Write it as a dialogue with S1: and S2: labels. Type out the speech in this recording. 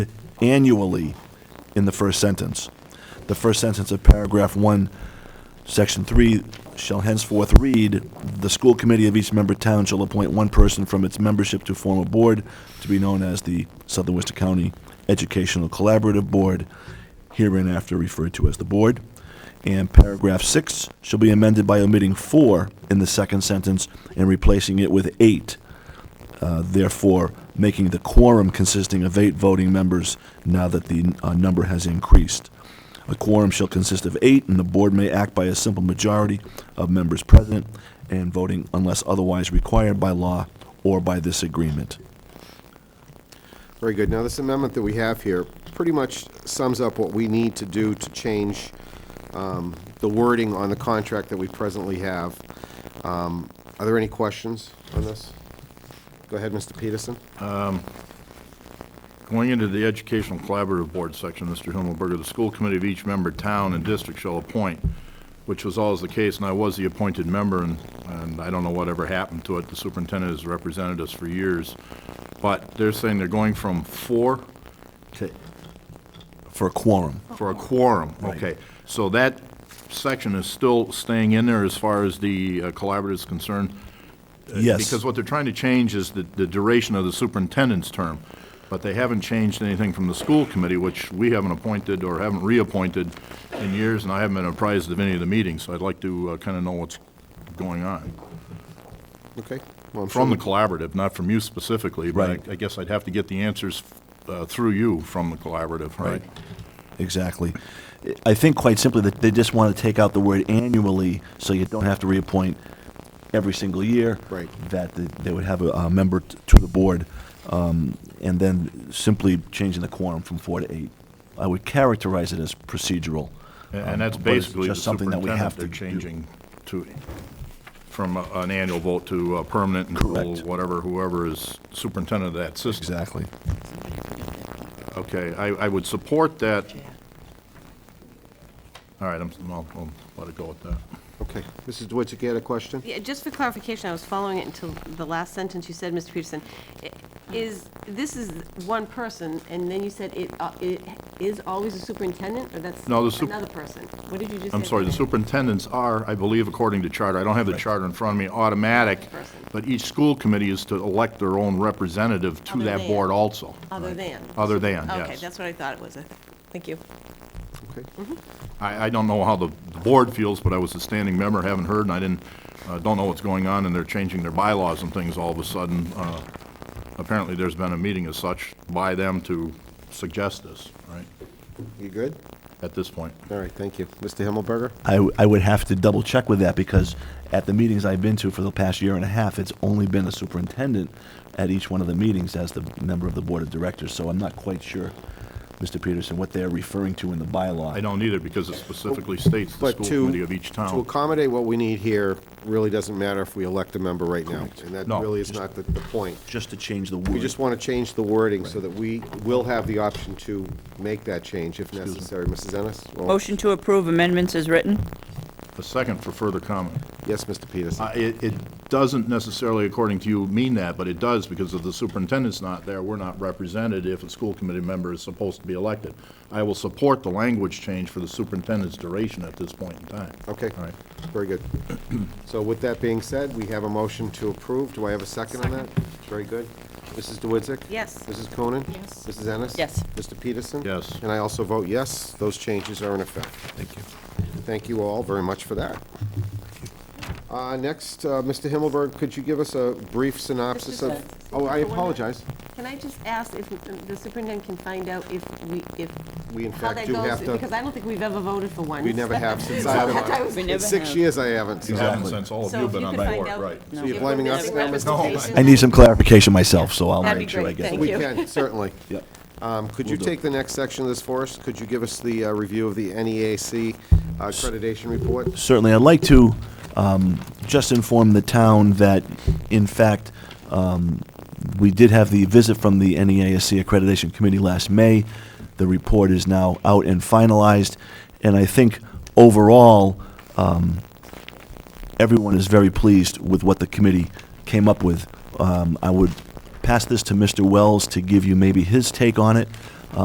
S1: annually in the first sentence. The first sentence of paragraph one, section three, shall henceforth read, "The school committee of each member town shall appoint one person from its membership to form a board to be known as the Southern Worcester County Educational Collaborative Board, hereinafter referred to as the board." And paragraph six shall be amended by omitting four in the second sentence and replacing it with eight uh, therefore making the quorum consisting of eight voting members now that the uh, number has increased. A quorum shall consist of eight, and the board may act by a simple majority of members present and voting unless otherwise required by law or by this agreement.
S2: Very good. Now, this amendment that we have here pretty much sums up what we need to do to change um, the wording on the contract that we presently have. Um, Are there any questions on this? Go ahead, Mr. Peterson.
S3: Going into the Educational Collaborative Board section, Mr. Himmelberger, the school committee of each member, town, and district shall appoint, which was always the case, and I was the appointed member, and, and I don't know whatever happened to it. The superintendent has represented us for years. But they're saying they're going from four to
S1: For a quorum,
S3: for a quorum, okay. So that section is still staying in there as far as the uh, collaborative is concerned? Uh,
S1: Yes.
S3: Because what they're trying to change is the, the duration of the superintendent's term, but they haven't changed anything from the school committee, which we haven't appointed or haven't reappointed in years, and I haven't been apprised of any of the meetings, so I'd like to kind of know what's going on.
S2: Okay. Well, I'm
S3: From the
S2: sure-
S3: collaborative, not from you specifically, but
S1: Right.
S3: I- I guess I'd have to get the answers uh, through you from the collaborative, right?
S1: exactly. I- I think quite simply that they just want to take out the word annually so you don't have to reappoint every single year.
S2: Right.
S1: That the- they would have a, a member t- to the board, um, and then simply changing the quorum from four to eight. I would characterize it as procedural.
S3: And-
S1: um,
S3: And that's
S1: but it's
S3: basically the
S1: just something that we have
S3: superintendent
S1: to
S3: they're
S1: do.
S3: changing to, from a- an annual vote to a permanent until
S1: Correct.
S3: whatever, whoever is superintendent of that system.
S1: Exactly.
S3: Okay, I, I would support that. All right, I'm, I'll, I'll let it go with that.
S2: Okay. Mrs. Dwitzik, you had a question?
S4: Yeah, just for clarification, I was following it until the last sentence you said, Mr. Peterson. I- Is, this is one person, and then you said it, uh, it is always a superintendent, or that's
S3: No, the sup-
S4: another person? What did you just say?
S3: I'm sorry, the superintendents are, I believe according to charter, I don't have the charter in front of me, automatic,
S4: Person.
S3: but each school committee is to elect their own representative to
S4: Other
S3: that
S4: than.
S3: board also.
S4: Other than.
S3: Other than, yes.
S4: Okay, that's what I thought it was. Thank you.
S2: Okay.
S3: I, I don't know how the the board feels, but I was a standing member, haven't heard, and I didn't, uh, don't know what's going on, and they're changing their bylaws and things all of a sudden. Uh, Apparently, there's been a meeting as such by them to suggest this, right,
S2: You good?
S3: at this point.
S2: All right, thank you. Mr. Himmelberger?
S1: I, w- I would have to double check with that because at the meetings I've been to for the past year and a half, it's only been a superintendent at each one of the meetings as the member of the board of directors. So I'm not quite sure, Mr. Peterson, what they're referring to in the bylaw.
S3: I don't either, because it specifically states the
S2: But
S3: school
S2: to,
S3: committee of each
S2: to
S3: town.
S2: accommodate what we need here, really doesn't matter if we elect a member right now. And that
S3: No,
S2: really is
S1: just-
S2: not the, the point.
S1: Just to change the
S2: We
S1: word.
S2: just want to change the wording so that we will have the option to make that change if necessary. Mrs. Ennis? Well,
S5: Motion to approve amendments is written.
S3: A second for further comment.
S2: Yes, Mr. Peterson.
S3: Uh, It, it doesn't necessarily, according to you, mean that, but it does, because if the superintendent's not there, we're not represented if a school committee member is supposed to be elected. I will support the language change for the superintendent's duration at this point in time.
S2: Okay.
S3: All right.
S2: Very good. So with that being said, we have a motion to approve. Do I have a second on that? Very good. Mrs. DeWitzik?
S4: Yes.
S2: Mrs. Conan?
S4: Yes.
S2: Mrs. Ennis?
S5: Yes.
S2: Mr. Peterson?
S3: Yes.
S2: And I also vote yes. Those changes are in effect. Thank you. Thank you all very much for that. Uh, Next, uh, Mr. Himmelberg, could you give us a brief synopsis of?
S4: Just a-
S2: Oh, I
S4: for one minute.
S2: apologize.
S4: Can I just ask if um, the superintendent can find out if we, if,
S2: We in
S4: how
S2: fact
S4: that
S2: do
S4: goes?
S2: have to.
S4: Because I don't think we've ever voted for one.
S2: We never have since
S4: So
S2: I've
S4: I thought it
S2: been,
S4: was-
S5: We
S2: in
S5: never
S2: six
S5: have.
S2: years I haven't. Um, so-
S3: You haven't since all of you
S4: So
S3: have
S4: if
S3: been
S4: you
S3: on
S4: could find
S3: board,
S4: out.
S3: right.
S2: So you're
S4: if
S2: blaming
S4: we're
S2: us
S4: missing
S2: now, Mr.
S4: representation.
S1: I need some clarification myself, so I'll
S4: That'd be
S1: make sure I
S4: great.
S1: get it.
S4: Thank
S2: We
S4: you.
S2: can, certainly.
S1: Yep.
S2: Um, Could you
S1: Will do.
S2: take the next section of this for us? Could you give us the uh, review of the NEAC uh, accreditation report?
S1: certainly, I'd like to um, just inform the town that, in fact, um, we did have the visit from the E NEASC Accreditation Committee last May. The report is now out and finalized, and I think overall, um, everyone is very pleased with what the committee came up with. Um, I would pass this to Mr. Wells to give you maybe his take on it